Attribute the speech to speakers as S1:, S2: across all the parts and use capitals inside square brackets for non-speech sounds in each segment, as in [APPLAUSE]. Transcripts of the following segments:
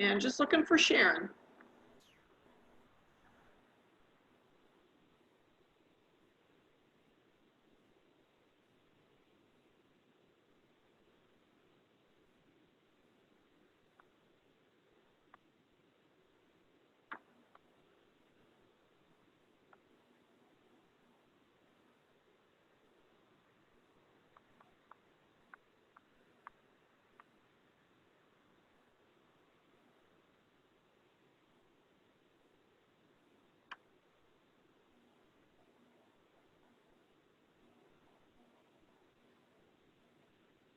S1: And just looking for Sharon.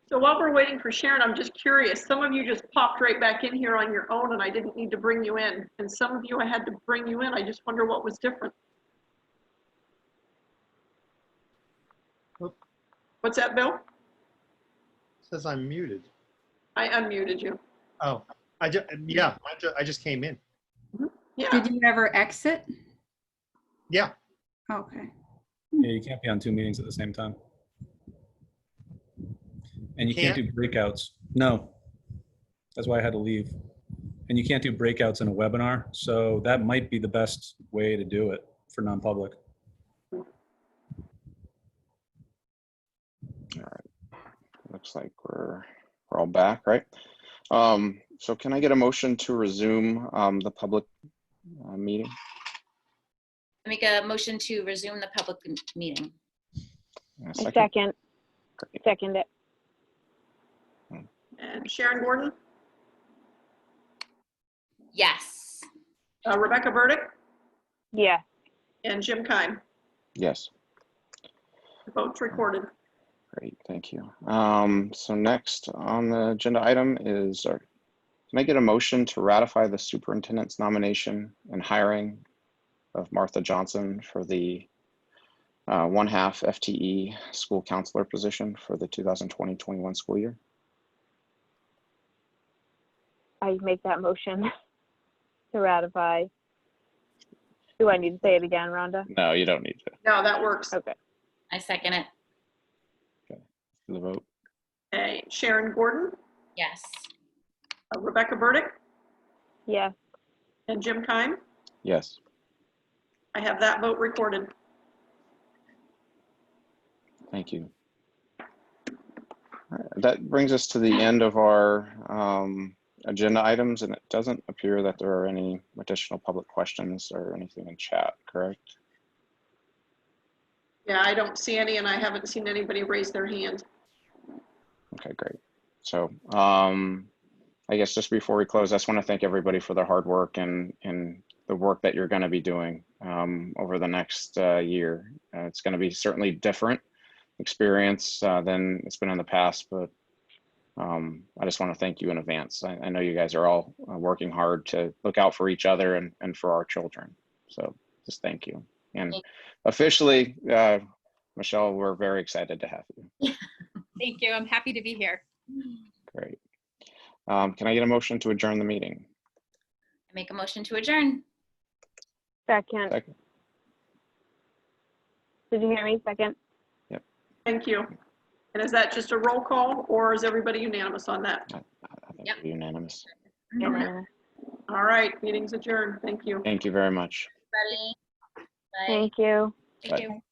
S1: So while we're waiting for Sharon, I'm just curious, some of you just popped right back in here on your own and I didn't need to bring you in. And some of you I had to bring you in. I just wonder what was different.
S2: Oop.
S1: What's that, Bill?
S2: Says I'm muted.
S1: I unmuted you.
S2: Oh, I just, yeah, I just, I just came in.
S1: Yeah,
S3: Did you ever exit?
S2: Yeah.
S3: Okay.
S4: Yeah, you can't be on two meetings at the same time. And you can't do breakouts. No. That's why I had to leave. And you can't do breakouts in a webinar, so that might be the best way to do it for non-public.
S5: Looks like we're, we're all back, right? Um, so can I get a motion to resume, um, the public, uh, meeting?
S6: Make a motion to resume the public m- meeting.
S5: A
S7: I
S5: second?
S7: second,
S5: Great.
S7: second it.
S1: and Sharon Gordon,
S6: Yes.
S1: uh, Rebecca Burdick,
S7: Yeah,
S1: and Jim Kime.
S5: Yes,
S1: Votes recorded.
S5: great, thank you. Um, so next on the agenda item is, our can I get a motion to ratify the superintendent's nomination and hiring of Martha Johnson for the, uh, one half FTE school counselor position for the 2020, 21 school year?
S7: I make that motion [LAUGHS] to ratify. Do I need to say it again, Rhonda?
S5: No, you don't need to
S1: No, that works.
S7: Okay,
S6: I second it.
S5: do the vote.
S1: Okay, Sharon Gordon,
S6: Yes.
S1: uh, Rebecca Burdick,
S7: yeah,
S1: and Jim Kime.
S5: Yes.
S1: I have that vote recorded.
S5: Thank you. All right, That brings us to the end of our um, agenda items, and it doesn't appear that there are any additional public questions or anything in chat, correct?
S1: Yeah, I don't see any, and I haven't seen anybody raise their hand.
S5: Okay, great. So um, I guess just before we close, I just want to thank everybody for their hard work and, and the work that you're going to be doing um, over the next uh, year. Uh, It's going to be certainly different experience uh, than it's been in the past, but um, I just want to thank you in advance. I, I know you guys are all uh, working hard to look out for each other and, and for our children. So just thank you. And
S6: Thank
S5: officially, uh, Michelle, we're very excited to have you.
S8: Thank you. I'm happy to be here.
S5: Great. Um, Can I get a motion to adjourn the meeting?
S6: Make a motion to adjourn.
S7: second.
S5: Second.
S7: Did you hear me? Second?
S1: Thank you. And is that just a roll call, or is everybody unanimous on that?
S5: I think
S6: Yep.
S5: we're unanimous.
S7: Yeah.
S1: All right, meeting's adjourned. Thank you.
S5: Thank you very much.
S6: Everybody. Bye.
S7: Thank you.
S8: Thank you.